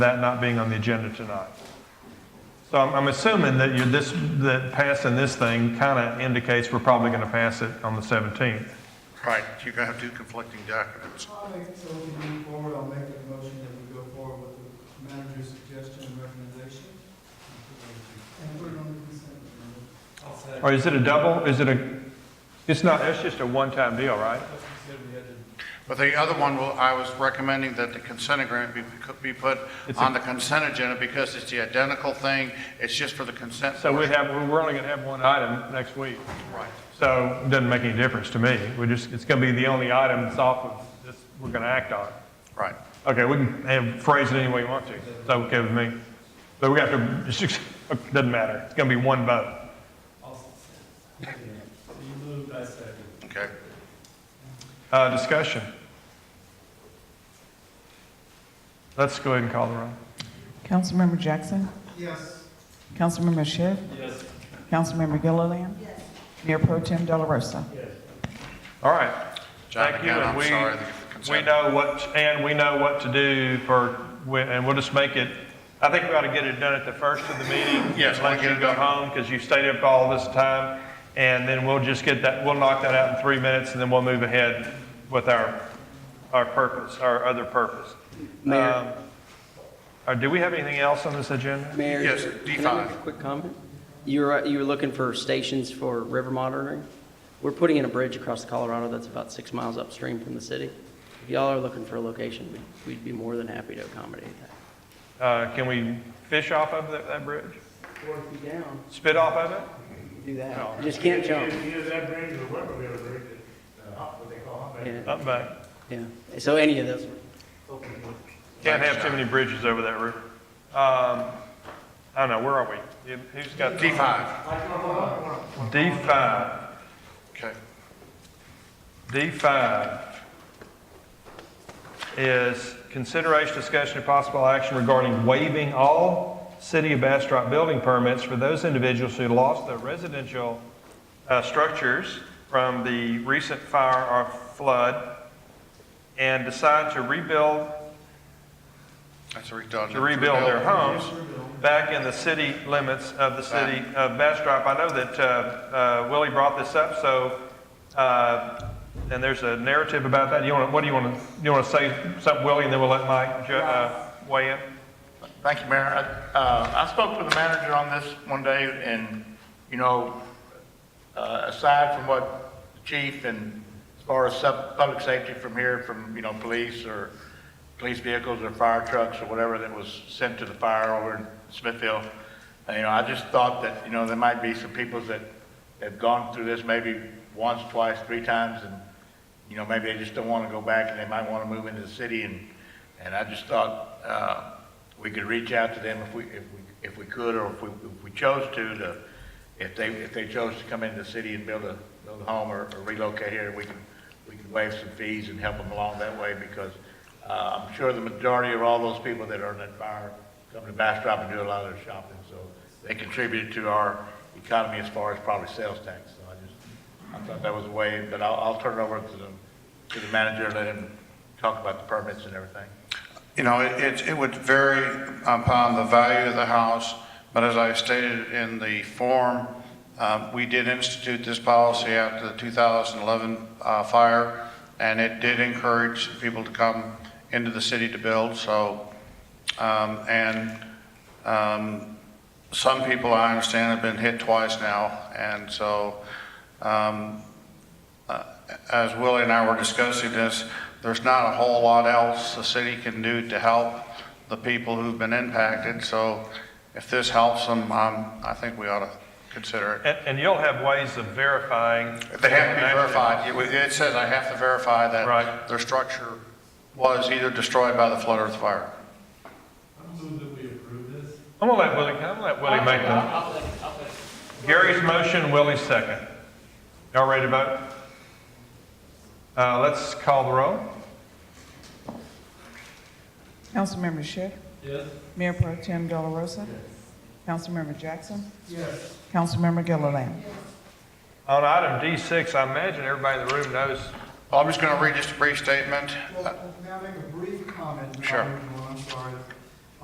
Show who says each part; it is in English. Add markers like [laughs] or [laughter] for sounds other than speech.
Speaker 1: that not being on the agenda tonight. So I'm, I'm assuming that you're this, that passing this thing kind of indicates we're probably going to pass it on the 17th.
Speaker 2: Right, you're gonna have two conflicting documents.
Speaker 3: I'll make, so we can move forward, I'll make a motion that we go forward with the manager's suggestion and recommendation. And put it on the consent agenda.
Speaker 1: Or is it a double? Is it a, it's not, it's just a one-time deal, right?
Speaker 2: But the other one, will- I was recommending that the consent agreement be, could be put
Speaker 1: It's a-
Speaker 2: on the consent agenda because it's the identical thing, it's just for the consent.
Speaker 1: So we
Speaker 2: portion.
Speaker 1: have, we're only going to have one item next week.
Speaker 2: Right.
Speaker 1: So it doesn't make any difference to me. We're just, it's going to be the only item that's off of this, we're going to act on.
Speaker 2: Right.
Speaker 1: Okay, we can have, phrase it any way you want to. It's okay with me. But we have to, [laughs] it doesn't matter. It's going to be one vote.
Speaker 4: You moved, I second.
Speaker 2: Okay.
Speaker 1: Uh, discussion. Let's go ahead and call the roll.
Speaker 5: Councilmember Jackson.
Speaker 3: Yes.
Speaker 5: Councilmember Schiff.
Speaker 4: Yes.
Speaker 5: Councilmember Gilliland. Yes. Mayor Pro Tem Delarosa.
Speaker 4: Yes.
Speaker 1: All right.
Speaker 2: John,
Speaker 1: Thank you,
Speaker 2: again,
Speaker 1: and
Speaker 2: I'm
Speaker 1: we-
Speaker 2: sorry, the
Speaker 1: We
Speaker 2: consent.
Speaker 1: know what, and we know what to do for, and we'll just make it, I think we ought to get it done at the first of the meeting.
Speaker 2: Yes, we'll
Speaker 1: Let
Speaker 2: get
Speaker 1: you
Speaker 2: it
Speaker 1: go
Speaker 2: done.
Speaker 1: home because you stayed up all this time. And then we'll just get that, we'll knock that out in three minutes and then we'll move ahead with our, our purpose, our other purpose. Um,
Speaker 6: Mayor,
Speaker 1: Uh, do we have anything else on this agenda?
Speaker 6: Mayor.
Speaker 2: Yes, D
Speaker 6: Can I make a
Speaker 2: five.
Speaker 6: quick comment? You were, you were looking for stations for river monitoring? We're putting in a bridge across the Colorado that's about six miles upstream from the city. If y'all are looking for a location, we'd- we'd be more than happy to accommodate that.
Speaker 1: Uh, can we fish off of that, that bridge?
Speaker 6: Or if you down,
Speaker 1: Spit off of it?
Speaker 6: do that. You just can't jump.
Speaker 4: Either that brings or what, we have a bridge that, uh, what they call it.
Speaker 6: Yeah,
Speaker 1: Up back.
Speaker 6: yeah. So any of those.
Speaker 1: Can't have too many bridges over that river. Um, I don't know, where are we? Who's got?
Speaker 2: D five,
Speaker 1: D five,
Speaker 2: okay.
Speaker 1: D five is consideration, discussion, and possible action regarding waiving all city of Bastrop building permits for those individuals who lost their residential, uh, structures from the recent fire or flood and decide to rebuild
Speaker 2: That's a redundant.
Speaker 1: to rebuild their homes back in the city limits of the city of Bastrop. I know that uh, uh, Willie brought this up, so, uh, and there's a narrative about that. You want, to what do you want to, you want to say something, Willie, and then we'll let Mike ju- uh, weigh in?
Speaker 7: Thank you, Mayor. I- uh, I spoke with the manager on this one day, and, you know, uh, aside from what the chief and as far as sub- public safety from here, from, you know, police or police vehicles or fire trucks or whatever that was sent to the fire over in Smithville, uh, you know, I just thought that, you know, there might be some people that have gone through this maybe once, twice, three times, and, you know, maybe they just don't want to go back, and they might want to move into the city, and, and I just thought, uh, we could reach out to them if we, if we, if we could, or if we, if we chose to, to, if they, if they chose to come into the city and build a, build a home or or relocate here, we can, we can waive some fees and help them along that way, because, uh, I'm sure the majority of all those people that are in that fire come to Bastrop and do a lot of their shopping, so they contribute to our economy as far as probably sales tax, so I just, I thought that was a way, but I'll, I'll turn it over to the, to the manager, and let him talk about the permits and everything.
Speaker 2: You know, it- it, it would vary upon the value of the house, but as I stated in the form, um, we did institute this policy after the 2011 uh, fire, and it did encourage people to come into the city to build, so, um, and um, some people, I understand, have been hit twice now, and so um, Uh, as Willie and I were discussing this, there's not a whole lot else the city can do to help the people who've been impacted, so if this helps them, um, I think we ought to consider it.
Speaker 1: And, and you'll have ways of verifying.
Speaker 2: They have to be verified. It- It says I have to verify
Speaker 1: Right.
Speaker 2: that their structure was either destroyed by the flood or the fire.
Speaker 4: I move that we approve this.
Speaker 1: I'm gonna let Willie, I'm gonna let Willie make the,
Speaker 6: I'll second, I'll second.
Speaker 1: Gary's motion, Willie's second. Y'all ready to vote? Uh, let's call the roll.
Speaker 5: Councilmember Schiff.
Speaker 4: Yes.
Speaker 5: Mayor Pro Tem Delarosa. Councilmember Jackson.
Speaker 3: Yes.
Speaker 5: Councilmember Gilliland.
Speaker 1: On item D6, I imagine everybody in the room knows
Speaker 2: Well, I'm just going to read just a brief statement.
Speaker 3: Well, can I make a brief comment? Oh, and I'll
Speaker 2: Sure.
Speaker 3: move